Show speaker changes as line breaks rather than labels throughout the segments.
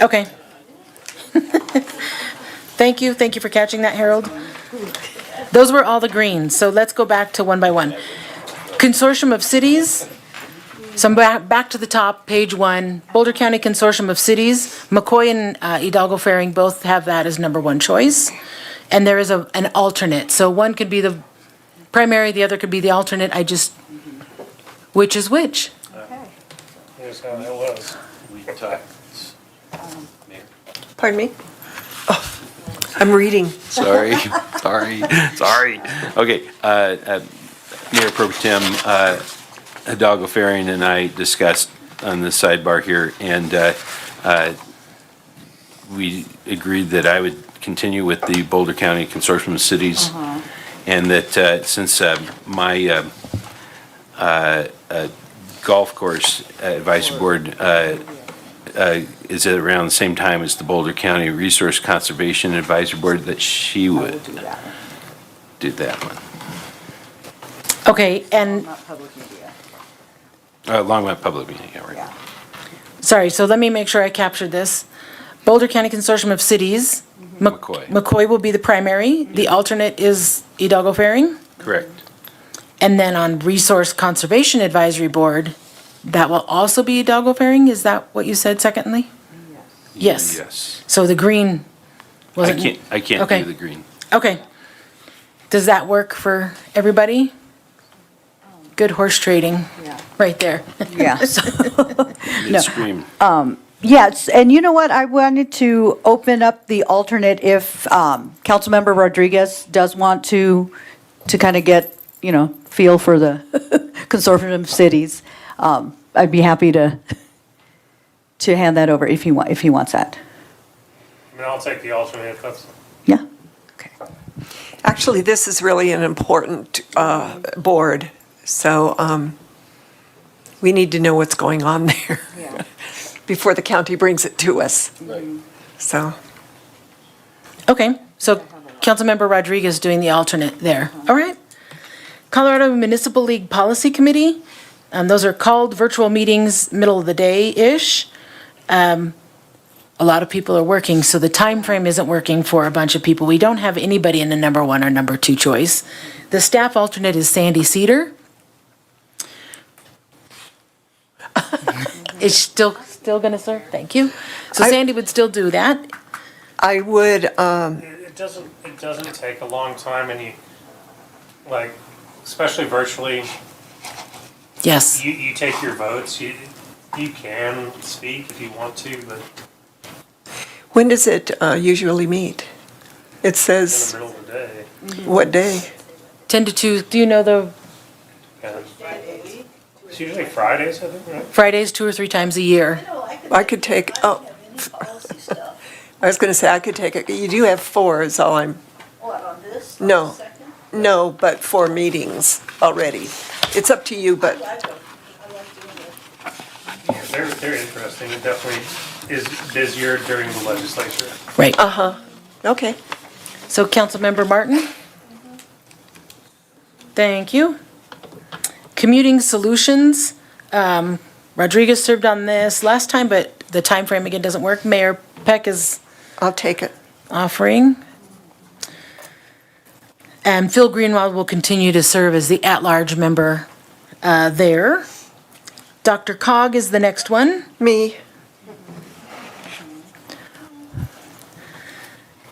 Okay. Thank you, thank you for catching that, Harold. Those were all the greens, so let's go back to one by one. Consortium of Cities, so I'm back, back to the top, page one. Boulder County Consortium of Cities, McCoy and uh, Hidalgo Faring both have that as number one choice. And there is a, an alternate, so one could be the primary, the other could be the alternate, I just, which is which?
Here's how that was.
We talked, Mayor.
Pardon me? I'm reading.
Sorry, sorry, sorry. Okay, uh, uh, Mayor Pro Tem, uh, Hidalgo Farian and I discussed on the sidebar here, and uh, uh, we agreed that I would continue with the Boulder County Consortium of Cities, and that uh, since uh, my uh, uh, uh, golf course advisory board uh, uh, is at around the same time as the Boulder County Resource Conservation Advisory Board, that she would do that one.
Okay, and
Not public media,
Uh, Longmont Public Meeting, yeah, right.
yeah.
Sorry, so let me make sure I captured this. Boulder County Consortium of Cities. Mc-
Mm-hmm. McCoy.
McCoy will be the primary, the alternate is Hidalgo Faring.
Correct.
And then on Resource Conservation Advisory Board, that will also be Hidalgo Faring, is that what you said secondly? Yes.
Yes.
So the green
I
wasn't.
can't, I can't
Okay.
do the green.
Okay. Does that work for everybody? Good horse trading,
Yeah.
right there.
Yeah.
It's green.
Yes, and you know what? I wanted to open up the alternate if um, Councilmember Rodriguez does want to, to kind of get, you know, feel for the consortium of cities. Um, I'd be happy to, to hand that over if he wa, if he wants that.
I mean, I'll take the alternate if that's.
Yeah? Okay.
Actually, this is really an important uh, board, so um, we need to know what's going on there
Yeah.
before the county brings it to us. So,
Okay, so Councilmember Rodriguez doing the alternate there, all right? Colorado Municipal League Policy Committee, um, those are called virtual meetings, middle of the day-ish. Um, a lot of people are working, so the time frame isn't working for a bunch of people. We don't have anybody in the number one or number two choice. The staff alternate is Sandy Cedar. Is still, still gonna serve, thank you. So
I-
Sandy would still do that,
I would, um,
It it doesn't, it doesn't take a long time and you, like, especially virtually,
yes.
you, you take your votes. You, you can speak if you want to, but
when does it uh, usually meet? It
in the
says
middle of the day.
what day?
10 to 2, do you know the
and- It's usually Fridays, I think, right?
Fridays two or three times a year?
I could take, oh,
policy stuff.
I was going to say, I could take it, you do have four is all I'm,
What, on this? on
No.
the second?
no, but four meetings already. It's up to you, but
I don't, I like doing it.
They're, they're interesting. It definitely is busier during the legislature.
Right.
uh-huh. Okay.
So Councilmember Martin? Thank you. Commuting Solutions, um, Rodriguez served on this last time, but the time frame again doesn't work. Mayor Peck is
I'll take it.
offering. And Phil Greenwald will continue to serve as the at-large member uh, there. Dr. Cog is the next one.
Me,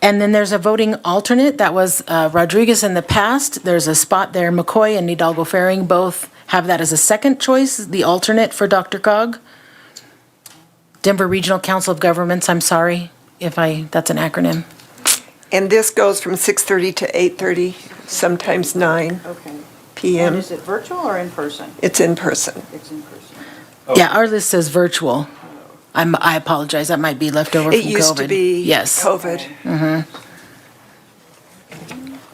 And then there's a voting alternate, that was uh, Rodriguez in the past. There's a spot there, McCoy and Hidalgo Faring both have that as a second choice, the alternate for Dr. Cog. Denver Regional Council of Governments, I'm sorry if I, that's an acronym.
and this goes from 6:30 to 8:30, sometimes 9
Okay. And
PM.
is it virtual or in person?
It's in person.
It's in person.
Yeah, our list says virtual. I'm, I apologize, that might be left over from COVID.
It used to be
Yes.
COVID.
I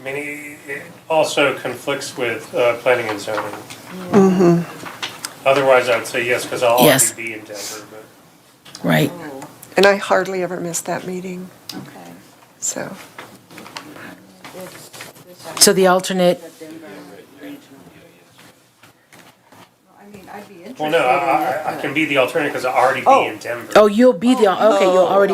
mean, it- it also conflicts with uh, planning and zoning. Otherwise, I'd say yes, because I'll
Yes.
already be in Denver, but.
Right.
And I hardly ever miss that meeting,
Okay.
so.
So the alternate
I mean, I'd be interested
Well, no, I, I- I can be the alternative because I already
Oh.
be in Denver.
Oh, you'll be the, okay, you'll already